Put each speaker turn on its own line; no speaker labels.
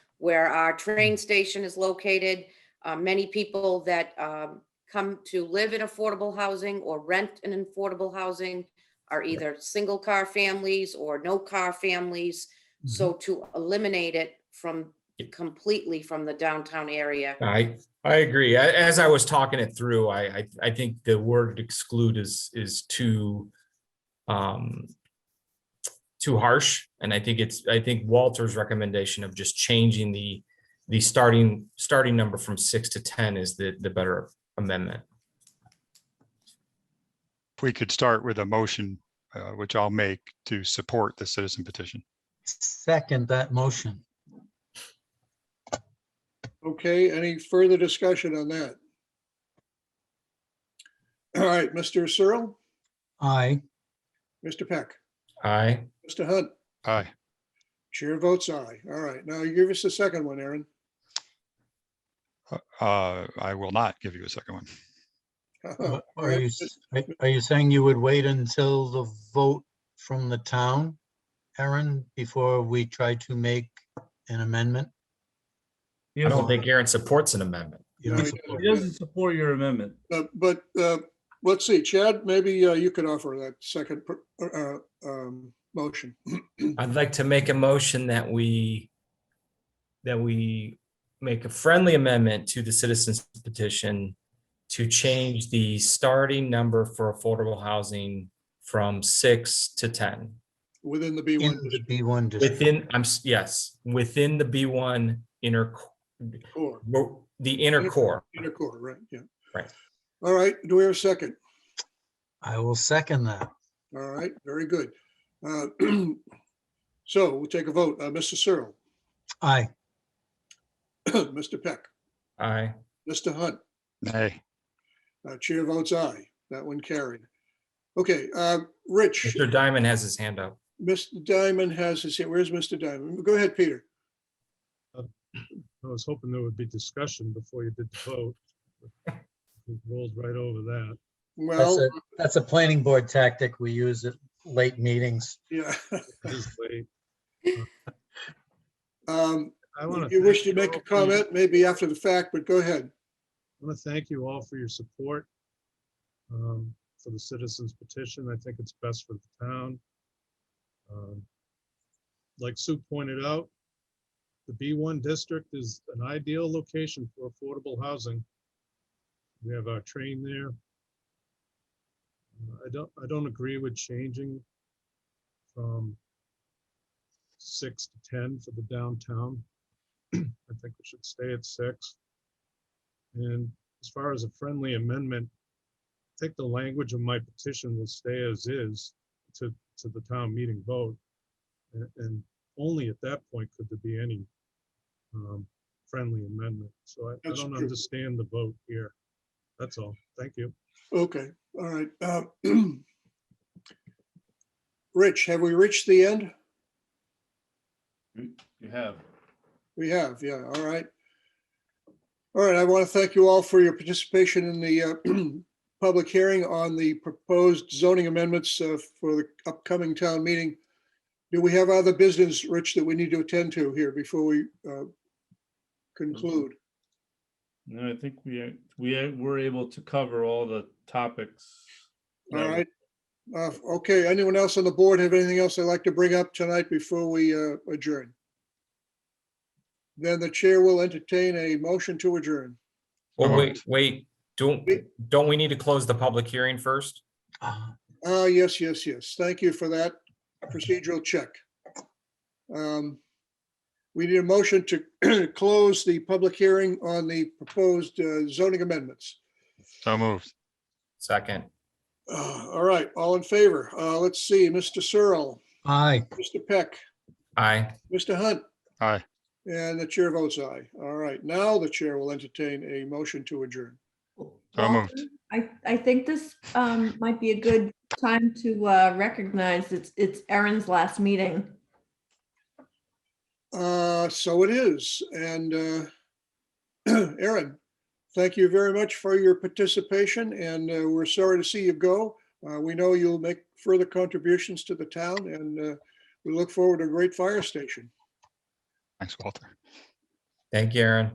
where our train station is located. Uh, Many people that um, come to live in affordable housing or rent in affordable housing are either single-car families or no-car families. So to eliminate it from completely from the downtown area.
I, I agree. A- As I was talking it through, I, I, I think the word exclude is, is too, um, too harsh. And I think it's, I think Walter's recommendation of just changing the, the starting, starting number from six to 10 is the, the better amendment.
If we could start with a motion, uh, which I'll make to support the citizen petition.
Second that motion.
Okay, any further discussion on that? All right, Mr. Searle,
Aye.
Mr. Peck,
Aye.
Mr. Hunt,
Aye.
chair votes aye. All right, now you give us the second one, Aaron.
Uh, I will not give you a second one.
Oh,
Are are you, s- are- are you saying you would wait until the vote from the town, Aaron, before we try to make an amendment?
I don't think Aaron supports an amendment.
You
No,
don't
he
support
He doesn't support your amendment.
Uh, But uh, let's see, Chad, maybe uh, you could offer that second per- uh, um, motion.
I'd like to make a motion that we, that we make a friendly amendment to the citizens petition to change the starting number for affordable housing from six to 10.
Within the
In
B1
the B1 district.
Within, I'm, s- yes, within the B1 inner,
core,
co- the inner core.
inner core, right, yeah.
Right.
All right, do we have a second?
I will second that.
All right, very good. Uh, So we'll take a vote. Uh, Mr. Searle,
Aye.
Mr. Peck,
Aye.
Mr. Hunt,
Nay.
Uh, Chair votes aye. That one carried. Okay, uh, Rich,
Mr. Diamond has his hand up.
Mr. Diamond has his, where's Mr. Diamond? Go ahead, Peter.
I was hoping there would be discussion before you did the vote. but we Rolled right over that.
That's
Well,
a, that's a planning board tactic we use at late meetings.
yeah.
It is late.
Um,
I want
You wish to make a comment, maybe after the fact, but go ahead.
I want to thank you all for your support um, for the citizens petition. I think it's best for the town. Um, Like Sue pointed out, the B1 district is an ideal location for affordable housing. We have our train there. Uh, I don't, I don't agree with changing from six to 10 for the downtown. I think we should stay at six. And as far as a friendly amendment, I think the language of my petition will stay as is to, to the town meeting vote. And, and only at that point could there be any um, friendly amendment. So I- I
That's
don't
true.
understand the vote here. That's all. Thank you.
Okay, all right. uh, Rich, have we reached the end?
You have.
We have, yeah, all right. All right, I want to thank you all for your participation in the uh, public hearing on the proposed zoning amendments uh, for the upcoming town meeting. Do we have other business, Rich, that we need to attend to here before we uh, conclude?
No, I think we, we were able to cover all the topics.
All
that
right. Uh, Okay, anyone else on the board have anything else they'd like to bring up tonight before we uh, adjourn? Then the chair will entertain a motion to adjourn.
Well,
Oh.
wait, wait, don't, don't we need to close the public hearing first?
Ah,
Ah, yes, yes, yes. Thank you for that procedural check. Um, We need a motion to close the public hearing on the proposed uh, zoning amendments.
So moved.
Second.
Uh, All right, all in favor? Uh, Let's see, Mr. Searle,
Aye.
Mr. Peck,
Aye.
Mr. Hunt,
Aye.
and the chair votes aye. All right, now the chair will entertain a motion to adjourn.
So
Well,
moved.
I, I think this um, might be a good time to uh, recognize it's, it's Erin's last meeting.
Uh, So it is, and uh, Aaron, thank you very much for your participation, and uh, we're sorry to see you go. Uh, We know you'll make further contributions to the town, and uh, we look forward to a great fire station.
Thanks, Walter.
Thank you, Aaron.